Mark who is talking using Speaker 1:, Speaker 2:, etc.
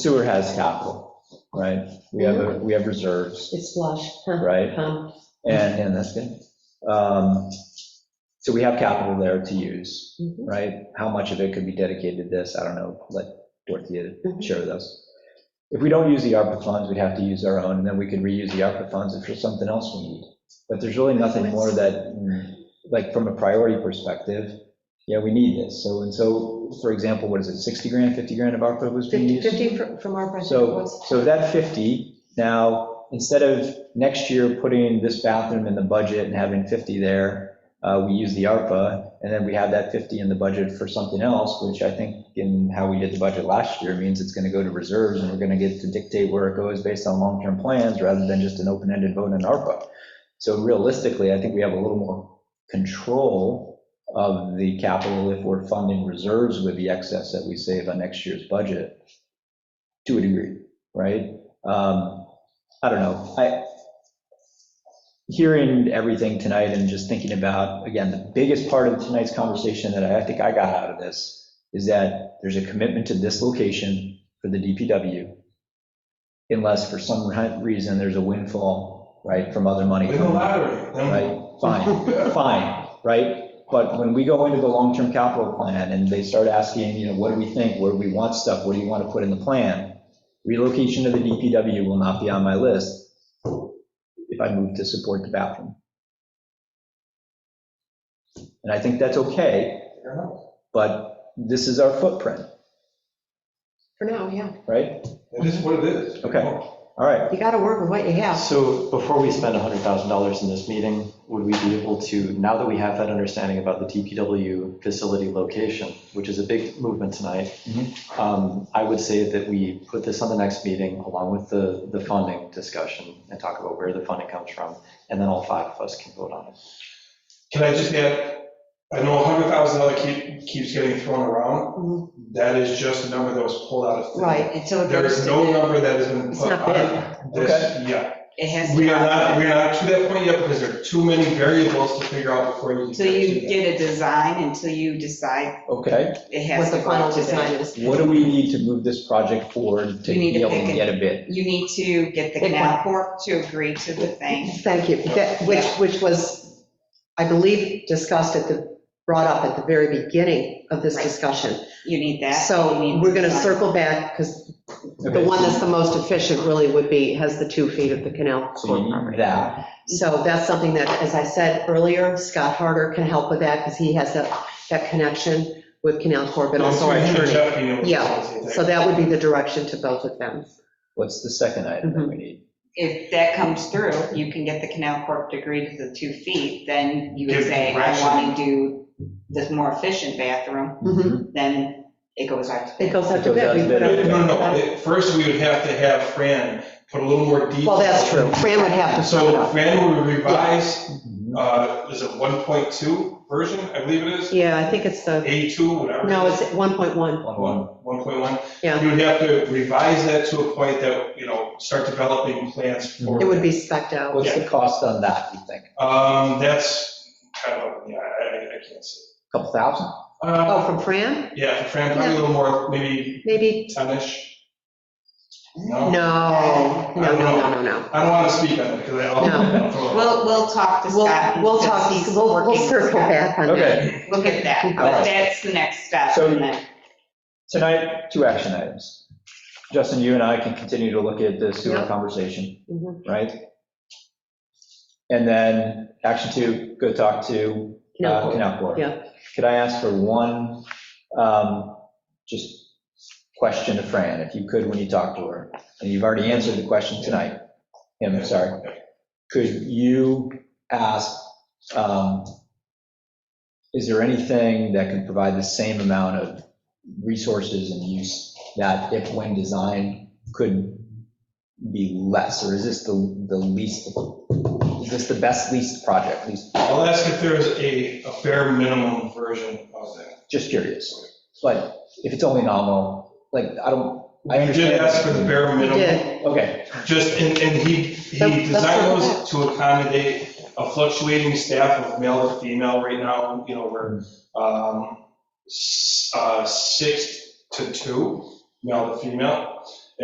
Speaker 1: sewer has capital, right? We have, a- we have reserves,
Speaker 2: It's flush. huh,
Speaker 1: right?
Speaker 2: huh.
Speaker 1: And, and that's good. Um, So we have capital there to use,
Speaker 2: Mhm.
Speaker 1: right? How much of it could be dedicated to this? I don't know, let Dorothea
Speaker 2: Mhm.
Speaker 1: share with us. If we don't use the ARPA funds, we'd have to use our own, and then we could reuse the ARPA funds if there's something else we need. But there's really nothing more that, mm, like, from a priority perspective, yeah, we need this. So, and so, for example, what is it, 60 grand, 50 grand of ARPA was being used?
Speaker 2: 50 fr- from our project
Speaker 1: So,
Speaker 2: was,
Speaker 1: so that 50, now, instead of next year putting this bathroom in the budget and having 50 there, uh, we use the ARPA, and then we have that 50 in the budget for something else, which I think in how we did the budget last year means it's going to go to reserves, and we're going to get to dictate where it goes based on long-term plans rather than just an open-ended vote on ARPA. So realistically, I think we have a little more control of the capital if we're funding reserves with the excess that we save on next year's budget to a degree, right? Um, I don't know, I, hearing everything tonight and just thinking about, again, the biggest part of tonight's conversation that I think I got out of this is that there's a commitment to this location for the DPW, unless for some reason there's a windfall, right, from other money.
Speaker 3: We
Speaker 1: coming in.
Speaker 3: elaborate.
Speaker 1: right? Fine, fine, right? But when we go into the long-term capital plan and they start asking, you know, what do we think, where do we want stuff, what do you want to put in the plan? Relocation of the DPW will not be on my list if I move to support the bathroom. And I think that's okay, but this is our footprint,
Speaker 2: for now, yeah.
Speaker 1: right?
Speaker 3: It is what it is.
Speaker 1: Okay. All right,
Speaker 2: You got to work with what you have.
Speaker 4: So before we spend $100,000 in this meeting, would we be able to, now that we have that understanding about the DPW facility location, which is a big movement tonight, um, I would say that we put this on the next meeting along with the, the funding discussion and talk about where the funding comes from, and then all five of us can vote on it.
Speaker 3: Can I just add, I know hundred thousand dollar keep, keeps getting thrown around.
Speaker 2: Mhm.
Speaker 3: That is just a number that was pulled out of. thin air.
Speaker 2: Right, and so it
Speaker 3: There
Speaker 2: goes
Speaker 3: is no
Speaker 2: to,
Speaker 3: number that has been
Speaker 2: It's
Speaker 3: put
Speaker 2: not
Speaker 3: on this yet.
Speaker 2: it has to.
Speaker 3: We are not, we are not to that point yet because there are too many variables to figure out before you. can
Speaker 5: Until you
Speaker 3: do that.
Speaker 5: get a design, until you decide
Speaker 1: okay.
Speaker 5: it
Speaker 2: What
Speaker 5: has to
Speaker 2: the final
Speaker 5: go to
Speaker 2: design
Speaker 5: that.
Speaker 2: is.
Speaker 1: What do we need to move this project forward to
Speaker 5: You need
Speaker 1: be
Speaker 5: to
Speaker 1: able
Speaker 5: pick
Speaker 1: to
Speaker 5: it.
Speaker 1: get a bid?
Speaker 5: You need to get
Speaker 2: Pick
Speaker 5: the
Speaker 2: one.
Speaker 5: canal corp to agree to the thing.
Speaker 2: Thank you, That- which, which was, I believe, discussed at the, brought up at the very beginning of this
Speaker 5: Right.
Speaker 2: discussion.
Speaker 5: You need that. you
Speaker 2: So
Speaker 5: need
Speaker 2: we're going to
Speaker 5: design.
Speaker 2: circle back, because the
Speaker 1: Okay,
Speaker 2: one that's the most efficient really would be, has the two feet of the canal.
Speaker 1: So you need that,
Speaker 2: So that's something that, as I said earlier, Scott Harder can help with that, because he has that, that connection with Canal Corp, and also our
Speaker 3: It's between
Speaker 2: attorney.
Speaker 3: Jeff being able to
Speaker 2: Yeah,
Speaker 3: facilitate
Speaker 2: So that would be the direction to both of them.
Speaker 1: what's the second item that we need?
Speaker 5: If that comes through, you can get the canal corp to agree to the two feet, then you would
Speaker 3: Give
Speaker 5: say, I
Speaker 3: direction.
Speaker 5: want to do this more efficient bathroom,
Speaker 2: Mhm.
Speaker 5: then it goes out to
Speaker 2: It
Speaker 5: bid.
Speaker 2: goes out to
Speaker 1: It goes out to
Speaker 2: bid. We put
Speaker 1: bid.
Speaker 3: No, no, no.
Speaker 2: out-
Speaker 3: It- First, we would have to have Fran put a little more detail.
Speaker 2: Well, that's true, Fran would have to sum it
Speaker 3: So
Speaker 2: up.
Speaker 3: Fran would revise
Speaker 1: Mhm.
Speaker 3: uh, is it 1.2 version, I believe it is?
Speaker 2: Yeah, I think it's the,
Speaker 3: A2, whatever.
Speaker 2: no, it's 1.1,
Speaker 1: One, one.
Speaker 3: One- 1.1.
Speaker 2: Yeah.
Speaker 3: You would have to revise that to a point that, you know, start developing plans for.
Speaker 2: it would be specked out.
Speaker 1: What's the cost on that, you think?
Speaker 3: Um, that's, I don't, yeah, I, I- I can't see.
Speaker 1: Couple thousand?
Speaker 3: Uh,
Speaker 2: Oh, from Fran?
Speaker 3: yeah, for Fran, probably a little more, maybe
Speaker 2: Maybe,
Speaker 3: 10-ish.
Speaker 2: no,
Speaker 3: No,
Speaker 2: no, no, no, no, no.
Speaker 3: I don't want to speak on it because I don't.
Speaker 5: We'll, we'll talk to Scott.
Speaker 2: We'll, we'll talk,
Speaker 5: because he's
Speaker 2: we'll, we'll
Speaker 5: working.
Speaker 2: circle back on that.
Speaker 1: Okay,
Speaker 5: Look at that,
Speaker 1: All right.
Speaker 5: but that's the next step.
Speaker 1: So-
Speaker 5: and then-
Speaker 1: tonight, two action items. Justin, you and I can continue to look at the sewer
Speaker 2: Yeah.
Speaker 1: conversation,
Speaker 2: Mhm.
Speaker 1: right? And then action two, go talk to
Speaker 2: Canal
Speaker 1: uh,
Speaker 2: Corp.
Speaker 1: Canal Corp.
Speaker 2: Yeah.
Speaker 1: Could I ask for one, um, just question to Fran, if you could, when you talk to her? And you've already answered the question tonight. I'm sorry. could you ask, um, is there anything that can provide the same amount of resources and use that if when designed could be less, or is this the, the least, is this the best least project, least,
Speaker 3: I'll ask if there's a, a bare minimum version of that.
Speaker 1: just curious. But if it's only nominal, like, I don't, I
Speaker 3: I did
Speaker 1: understand.
Speaker 3: ask for the bare
Speaker 2: We
Speaker 3: minimum.
Speaker 2: did,
Speaker 1: Okay,
Speaker 3: Just, and, and he, he
Speaker 2: That's- that's
Speaker 3: designed
Speaker 2: what
Speaker 3: those to accommodate a fluctuating staff of male to female right now, you know, we're, um, s- uh, six to two, male to female.